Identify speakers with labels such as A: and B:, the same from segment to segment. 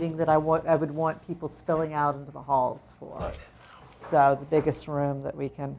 A: meeting that I want, I would want people spilling out into the halls for. So the biggest room that we can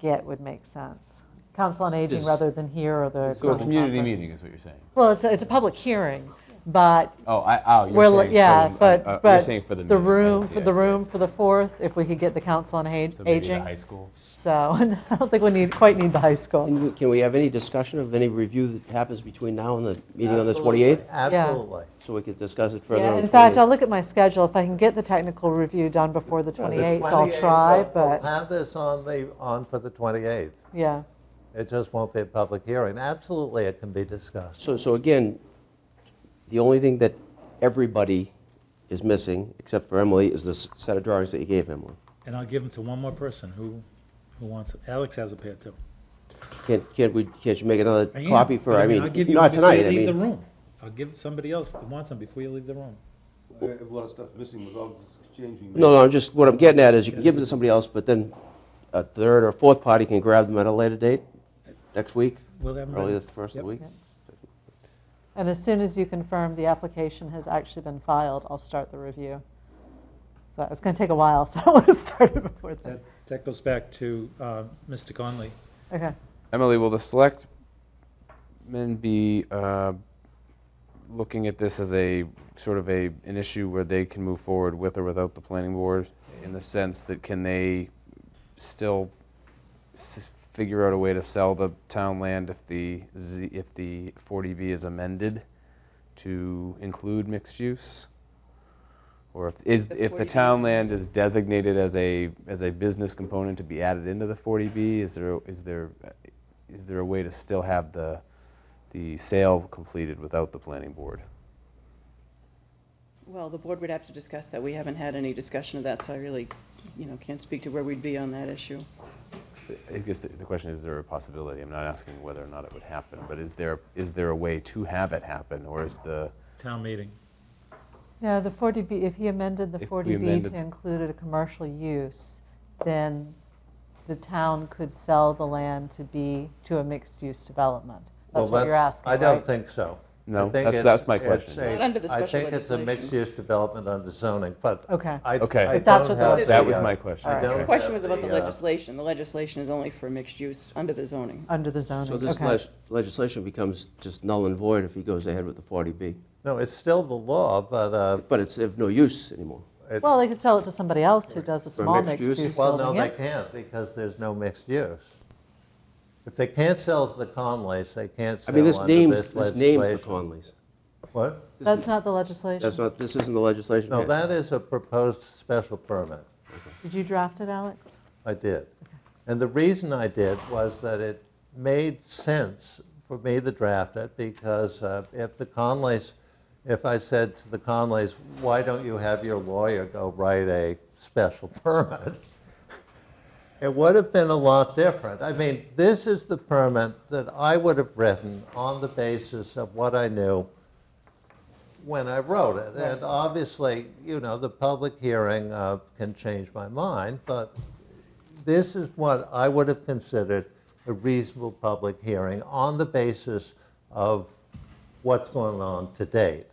A: get would make sense. Council on Aging
B: Does-
A: rather than here or the.
B: So a
A: global
B: community
A: conference.
B: meeting is what you're saying?
A: Well, it's, a- it's a public hearing, but
B: Oh, I, oh,
A: we're,
B: you're
A: li-
B: saying. for
A: yeah,
B: the-
A: but,
B: uh, uh,
A: but
B: You're saying for the meeting. I
A: room,
B: see,
A: for
B: I
A: the
B: see, I
A: room
B: see.
A: for the fourth, if we could get the Council on Ag-
B: So maybe the high
A: Aging.
B: school?
A: So I don't think we need, quite need the high school.
C: And we- Can we have any discussion of any review that happens between now and the meeting on the
D: Absolutely,
C: 28th?
D: Absolutely.
C: So we could discuss it further on
A: Yeah,
C: the 28th?
A: in fact, I'll look at my schedule. If I can get the technical review done before the
D: The
A: 28th,
D: 28th,
A: I'll
D: we'll-
A: try,
B: uh,
D: We'll
A: but,
D: have this on the, on for the 28th.
A: yeah.
D: It just won't be a public hearing. Absolutely, it can be discussed.
C: So, so again, the only thing that everybody is missing, except for Emily, is this set of drawings that you gave Emily.
E: And I'll give them to one more person who, who wants, it. Alex has a pair too.
C: Can't, can't we, can't you make another
E: I am,
C: copy for,
E: but
C: I mean,
E: I'll give you one
C: not
E: before you
C: tonight, I
E: Leave the
C: mean,
E: room. I'll give somebody else that wants them before you leave the room.
F: I have a lot of stuff missing without exchanging.
C: no, no, I'm just, what I'm getting at is you can give it to somebody else, but then a third or fourth party can grab them at a later date, next week,
E: We'll have them
C: early the
E: ready.
C: first of the
E: Yep.
C: week.
A: And as soon as you confirm the application has actually been filed, I'll start the review. But it's going to take a while, so I want to start it before then.
E: That, that goes back to, uh, Mr. Conley.
A: Okay.
G: Emily, will the selectmen be uh, looking at this as a, sort of a, an issue where they can move forward with or without the planning board? In the sense that can they still s- figure out a way to sell the town land if the, Z- if the 40B is amended to include mixed use? Or if, is, if the town land is designated as a, as a business component to be added into the 40B, is there, is there, is there a way to still have the, the sale completed without the planning board?
H: Well, the board would have to discuss that. We haven't had any discussion of that, so I really, you know, can't speak to where we'd be on that issue.
G: I guess the the question is, is there a possibility? I'm not asking whether or not it would happen, but is there, is there a way to have it happen? Or is the,
E: Town meeting.
A: No, the 40B, if he amended the
G: If we
A: 40B
G: amended-
A: to include a commercial use, then the town could sell the land to be, to a mixed-use development.
D: Well,
A: That's what you're asking,
D: I don't
A: right?
D: think so. I
G: No,
D: think
G: that's-
D: it's-
G: that's my
D: it's
G: question.
D: a-
H: Not under the
D: I
H: special
D: think it's a
H: legislation.
D: mixed-use development under zoning, but.
A: Okay.
D: I-
G: Okay.
D: I
A: If that's
D: don't
A: what the
D: have
H: legis-
G: that was
D: uh,
G: my question.
A: All right.
D: don't
H: The
G: okay.
H: question was about the
D: The, uh,
H: legislation. The legislation is only for mixed use under the zoning.
A: Under the zoning,
C: So
A: okay.
C: this leg- legislation becomes just null and void if he goes ahead with the 40B.
D: No, it's still the law, but, uh,
C: But it's of no use anymore.
A: Well, they could sell it to somebody else who does a
C: For
A: small
C: mixed use?
A: mixed-use
D: well, no,
A: building.
D: they
A: yeah.
D: can't because there's no mixed use. If they can't sell to the Conleys, they can't
C: I
D: sell
C: mean,
D: under
C: this
D: this
C: names,
D: legislation.
C: this names the Conleys.
D: What?
A: That's not the legislation.
C: That's not, this isn't the legislation.
D: No,
C: Okay.
D: that is a proposed special permit.
A: Did you draft it, Alex?
D: I did. And the reason I did was that it made sense for me to draft it because uh, if the Conleys, if I said to the Conleys, why don't you have your lawyer go write a special permit? It would have been a lot different. I mean, this is the permit that I would have written on the basis of what I knew when I wrote it. And obviously, you know, the public hearing uh, can change my mind, but this is what I would have considered a reasonable public hearing on the basis of what's going on to date.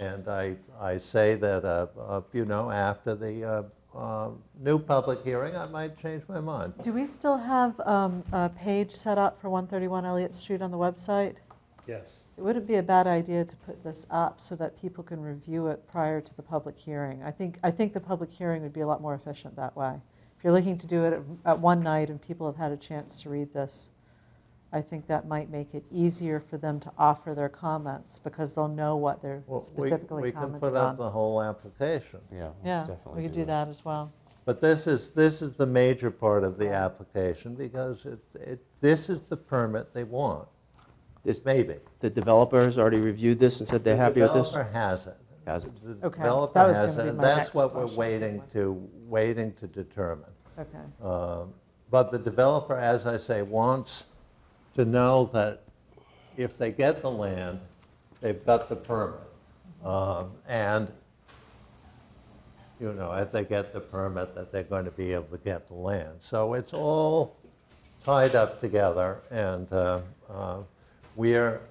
D: And I, I say that, uh, uh, you know, after the uh, uh, new public hearing, I might change my mind.
A: Do we still have um, a page set up for 131 Elliott Street on the website?
E: Yes.
A: It wouldn't be a bad idea to put this up so that people can review it prior to the public hearing. I think, I think the public hearing would be a lot more efficient that way. If you're looking to do it at- at one night and people have had a chance to read this, I think that might make it easier for them to offer their comments because they'll know what they're
D: Well, we-
A: specifically
D: We can
A: commenting
D: put up
A: on.
D: the whole application.
G: Yeah,
A: Yeah,
G: let's definitely
A: we could do that as well.
D: But this is, this is the major part of the application because it, it, this is the permit they want,
C: This-
D: maybe.
C: The developer has already reviewed this and said they're happy with this?
D: Developer has it.
C: Hasn't.
D: The
A: Okay,
D: developer
A: that was
D: has
A: gonna
D: it,
A: be
D: and
A: my
D: that's
A: next
D: what we're
A: question.
D: waiting to, waiting to determine.
A: Okay.
D: Um, But the developer, as I say, wants to know that if they get the land, they've got the permit. Um, And, you know, if they get the permit, that they're going to be able to get the land. So it's all tied up together, and uh, uh, we're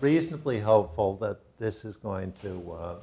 D: reasonably hopeful that this is going to uh,